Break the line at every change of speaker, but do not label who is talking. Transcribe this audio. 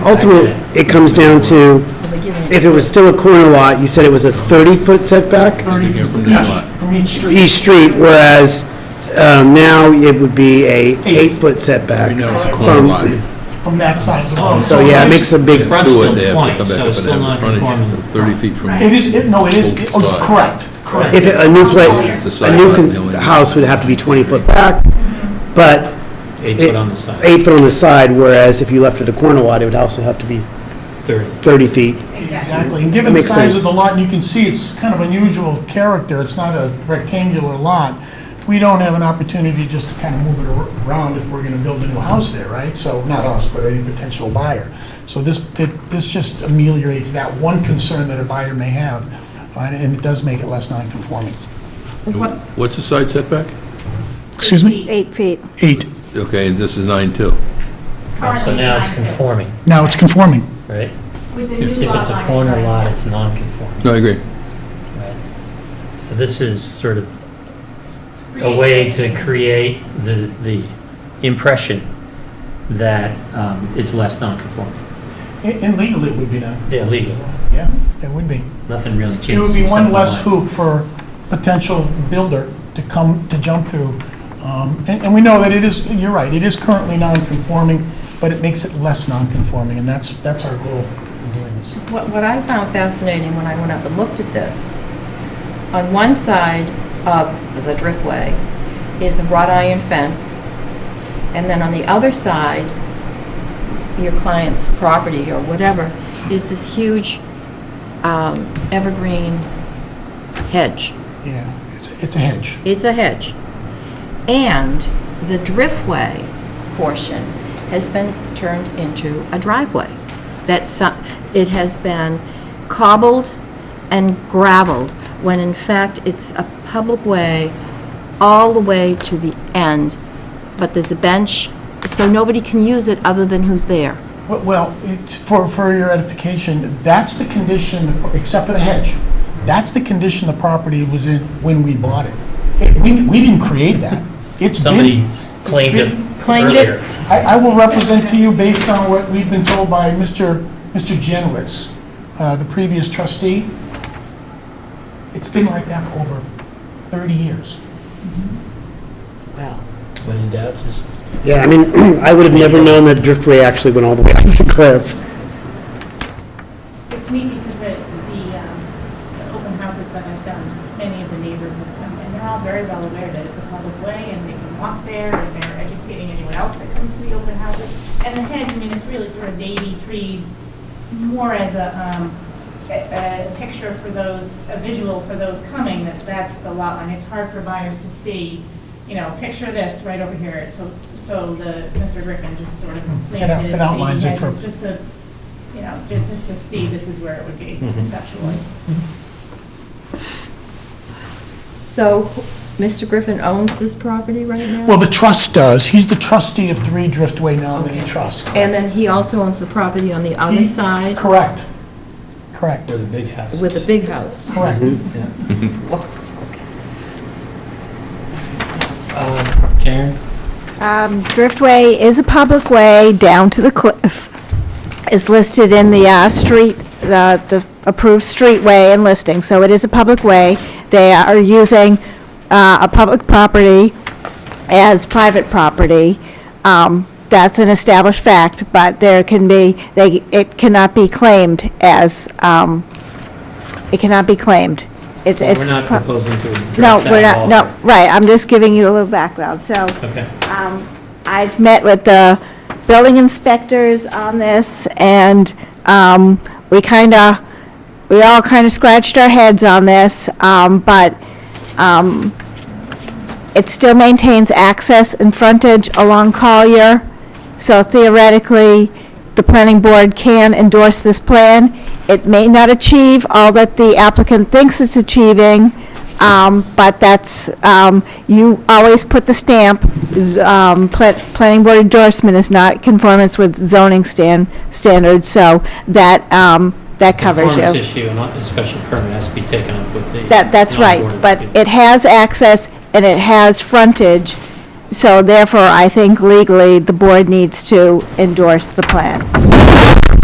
Ultimately, it comes down to, if it was still a corner lot, you said it was a 30-foot setback
Thirty from each, from each
for
street.
each street, whereas um, now it would be a eight-foot setback. from-
From that side of the road.
So, yeah, it makes a big,
Front
Do
still
it, they have to
20,
come back
so
up
it's
and
still
have the frontage
non-conforming.
of 30 feet from.
It is, it, no, it is, it- oh,
Side.
correct, correct.
if it- a new pla,
It's the
a
side
new
lot, the
con-
only-
house would have to be 20-foot back, but
Eight
It-
foot on the side,
eight foot on the side, whereas if you left it a corner lot, it would also have to be
30.
30 feet.
Exactly, and given the
Makes
size
sense.
of the lot, and you can see it's kind of unusual character, it's not a rectangular lot. We don't have an opportunity just to kind of move it ar- around if we're gonna build a new house there, right? So, not us, but any potential buyer. So this, it- this just ameliorates that one concern that a buyer may have, uh, and and it does make it less non-conforming.
What's the side setback?
Excuse me?
Eight feet.
Eight,
Okay, and this is 9.2.
So now it's conforming,
now it's conforming.
right?
With the
If
new lot
it's a
line,
corner
right.
lot, it's non-conforming,
No, I agree.
right? So this is sort of a way to create the, the impression that um, it's less non-conforming.
And and legally, it would be non
Yeah, legal,
Yeah, it would be.
nothing really changes.
It would be
except
one
the
less
line.
hoop for potential builder to come, to jump through. Um, And and we know that it is, you're right, it is currently non-conforming, but it makes it less non-conforming, and that's, that's our goal in doing this.
What, what I found fascinating when I went up and looked at this, on one side of the driftway is a wrought iron fence, and then on the other side, your client's property or whatever, is this huge um, evergreen hedge.
Yeah, it's, it's a hedge.
It's a hedge. And the driftway portion has been turned into a driveway. That's, it has been cobbled and gravelled, when in fact, it's a public way all the way to the end, but there's a bench, so nobody can use it other than who's there.
Well- Well, it's- for, for your edification, that's the condition, except for the hedge, that's the condition the property was in when we bought it. It- We, we didn't create that. It's been...
Somebody claimed it
it's been-
claimed it.
earlier.
I, I will represent to you based on what we've been told by Mr. Mr. Jenowitz, uh, the previous trustee. It's been like that for over 30 years.
Well.
When in doubt, just
Yeah, I mean, I would have never known that Driftway actually went all the way out to the cliff.
It's neat because the, the, um, the open houses that I've done, many of the neighbors have come, and they're all very well aware that it's a public way, and they can walk there, and they're educating anyone else that comes to the open houses. And the hedge, I mean, it's really sort of navy trees, more as a, um, a, a picture for those, a visual for those coming, that that's the lot line. It's hard for buyers to see, you know, picture this right over here, so, so the, Mr. Griffin just sort of planted
it outlines
the
it for-
hedges Just a, you know, ju- just to see this is where it would be conceptually.
So Mr. Griffin owns this property right now?
Well, the trust does. He's the trustee of Three Driftway Nominee Trust.
And then he also owns the property on the other
He-
side
Correct. Correct.
where the big house
with
is.
a big house.
Correct.
Um, Karen?
Um, Driftway is a public way down to the cliff. It's listed in the uh, street, the the approved streetway and listing, so it is a public way. They are using uh, a public property as private property. Um, That's an established fact, but there can be, they, it cannot be claimed as, um, it cannot be claimed. It's.
Well,
it's
We're not
pro-
proposing to address
No,
that
we're
at
not,
all.
no, right, I'm just giving you a little background, so.
Okay.
Um, I've met with the building inspectors on this, and um, we kind of, we all kind of scratched our heads on this, um, but um, it still maintains access and frontage along Collier, so theoretically, the planning board can endorse this plan. It may not achieve all that the applicant thinks it's achieving, um, but that's, um, you always put the stamp, z- um, pla- planning board endorsement is not conformance with zoning stan, standards, so that, um, that covers you.
Performance issue, and not a special permit has to be taken up with the.
That, that's right,
non-board
but
appeal.
it has access and it has frontage, So therefore, I think legally, the board needs to endorse the plan.